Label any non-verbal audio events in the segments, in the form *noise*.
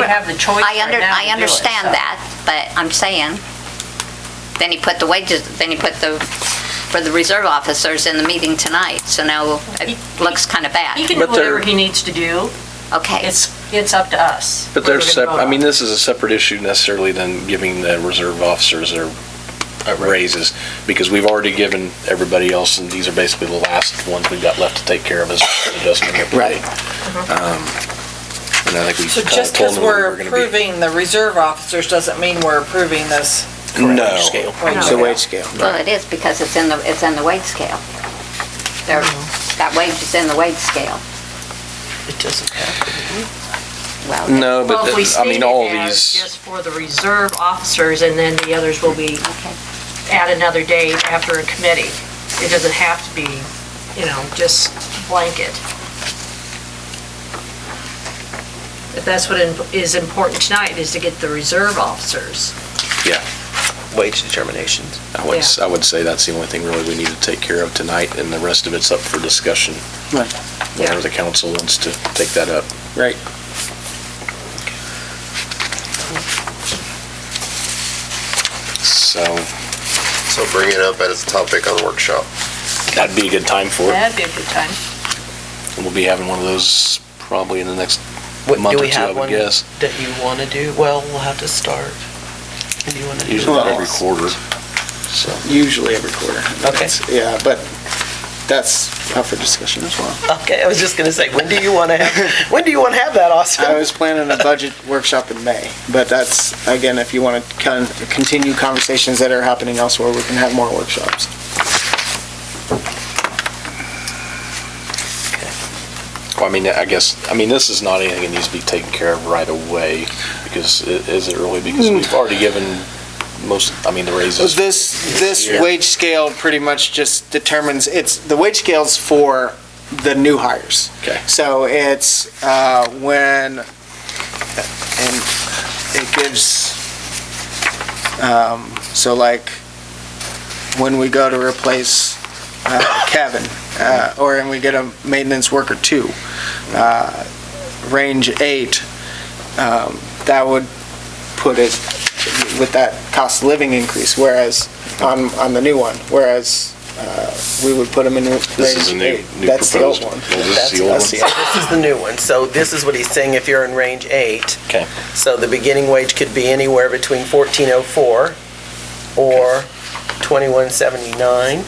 don't have the choice I right under, now to I do it, understand so. that, but I'm saying, then he put the wages, then he put the, for the reserve officers in the meeting tonight, so now it looks kind of He bad. can do But they're- whatever he needs to do. Okay, It's, it's up to us. what But we're they're gonna sep, vote I on. mean, this is a separate issue necessarily than giving the reserve officers their uh, raises, because we've already given everybody else, and these are basically the last ones we've got left to take care of as adjustment. Right. And I think we So kind of just told because them we were we're going to be. approving the reserve officers doesn't mean we're approving this. No. Scale. Wage It's a scale. wage scale. well, it is because it's in the, it's in the wage scale. There, that wage is in the wage scale. It doesn't Well, No, but, Well, if we the- I state mean, it all as these, just for the reserve officers, and then the others will be okay. at another date after a committee. It doesn't have to be, you know, just blanket. If that's what im- is important tonight, is to get the reserve officers. yeah, Wage determinations. I would, Yeah. I would say that's the only thing really we need to take care of tonight, and the rest of it's up for discussion. Right. Whenever the council wants to take that up. Right. So So bring it up as a topic on the workshop. that'd be a good time for it. be a good time. We'll be having one of those probably in the next What, month do or we two, I have would one guess. that you want to do? Well, we'll have to start. Do you want to do? Usually about every that? quarter. So, Usually every quarter. Okay. Yeah, but that's up for discussion as well. Okay, I was just going to say, when do you want to have, when do you want to have *laughs* that, I Austin? was planning a budget workshop in May, but that's, again, if you want to con- continue conversations that are happening elsewhere, we can have more workshops. well, I mean, I guess, I mean, this is not anything that needs to be taken care of right away because i- is it really? Because we've already given most, I mean, the raises. This, this Yeah. wage scale pretty much just determines, it's, the wage scale's for the new hires. Okay. So it's uh, when, and it gives, um, so like, when we go to replace uh, Kevin, uh, or and we get a maintenance worker two, uh, range eight, um, that would put it with that cost of living increase, whereas, on, on the new one, whereas uh, we would put them in range eight. This is a new, new That's the old proposed. one. Well, this is the old That's one. the- This is the new one. So this is what he's saying, if you're in range eight. Okay. So the beginning wage could be anywhere between 1404 or 2179.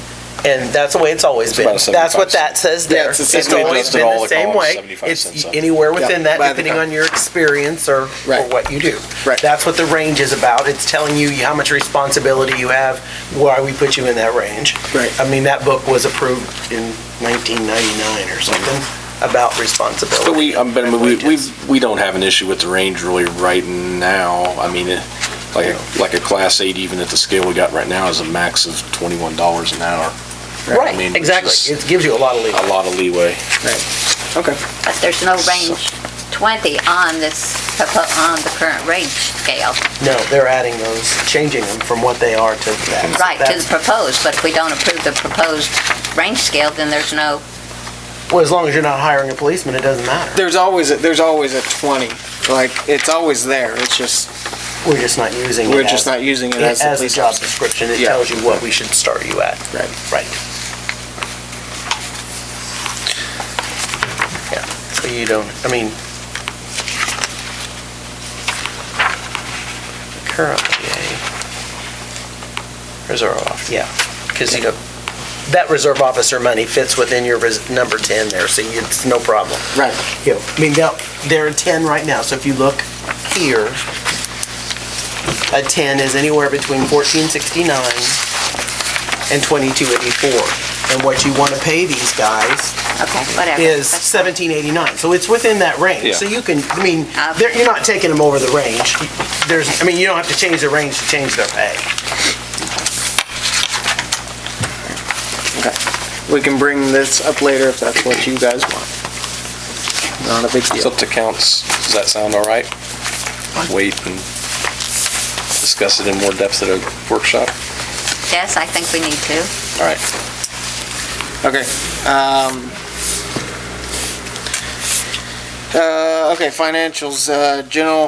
And that's the way it's always It's been. about a That's 75 what that says there. Yeah, it's the same way always adjusted been all the the same columns, way. 75 It's cents. anywhere within Yeah, that, by the depending column. on your experience or, or Right. what you do. Right. That's what the range is about. It's telling you how much responsibility you have, why we put you in that range. Right. I mean, that book was approved in 1999 or Mm-hmm. something about responsibility. But we, um, but and we, we, wages. we don't have an issue with the range really right now. I mean, it- like, a- like a class eight, even at the scale we got right now, is a max of twenty-one dollars an hour. I mean, Right, which exactly. is It gives you a lot of leeway. A lot of leeway. Okay. But there's no range 20 on this, propo- on the current range scale. No, they're adding those, changing them from what they are to that. Right, to the That's- proposed, but if we don't approve the proposed range scale, then there's no, Well, as long as you're not hiring a policeman, it doesn't matter. There's always, a- there's always a 20, like, it's always there, it's just, We're just not using it we're as- just not using it As as the a police job officer. description, it Yeah. tells you what we should start you at. Right. Right. Yeah, so you don't, I mean. Currently, a reserve officer, yeah, because you know, that reserve officer money fits within your res- number 10 there, so you- it's no problem. Right, Yeah, I mean, now, they're a 10 right now, so if you look here, a 10 is anywhere between 1469 and 2284. And what you want to pay these guys okay, whatever. is That's- 1789. So it's within that range. Yeah. So you can, I mean, Uh, they're- you're not taking them over the range. There's, I mean, you don't have to change the range to change their pay. we can bring this up later if that's what you guys want. Not a big It's deal. up to counts. Does that sound all right? Wait and discuss it in more depth at a workshop? Yes, I think we need to. All right. Okay. um, uh, Okay, financials, uh, general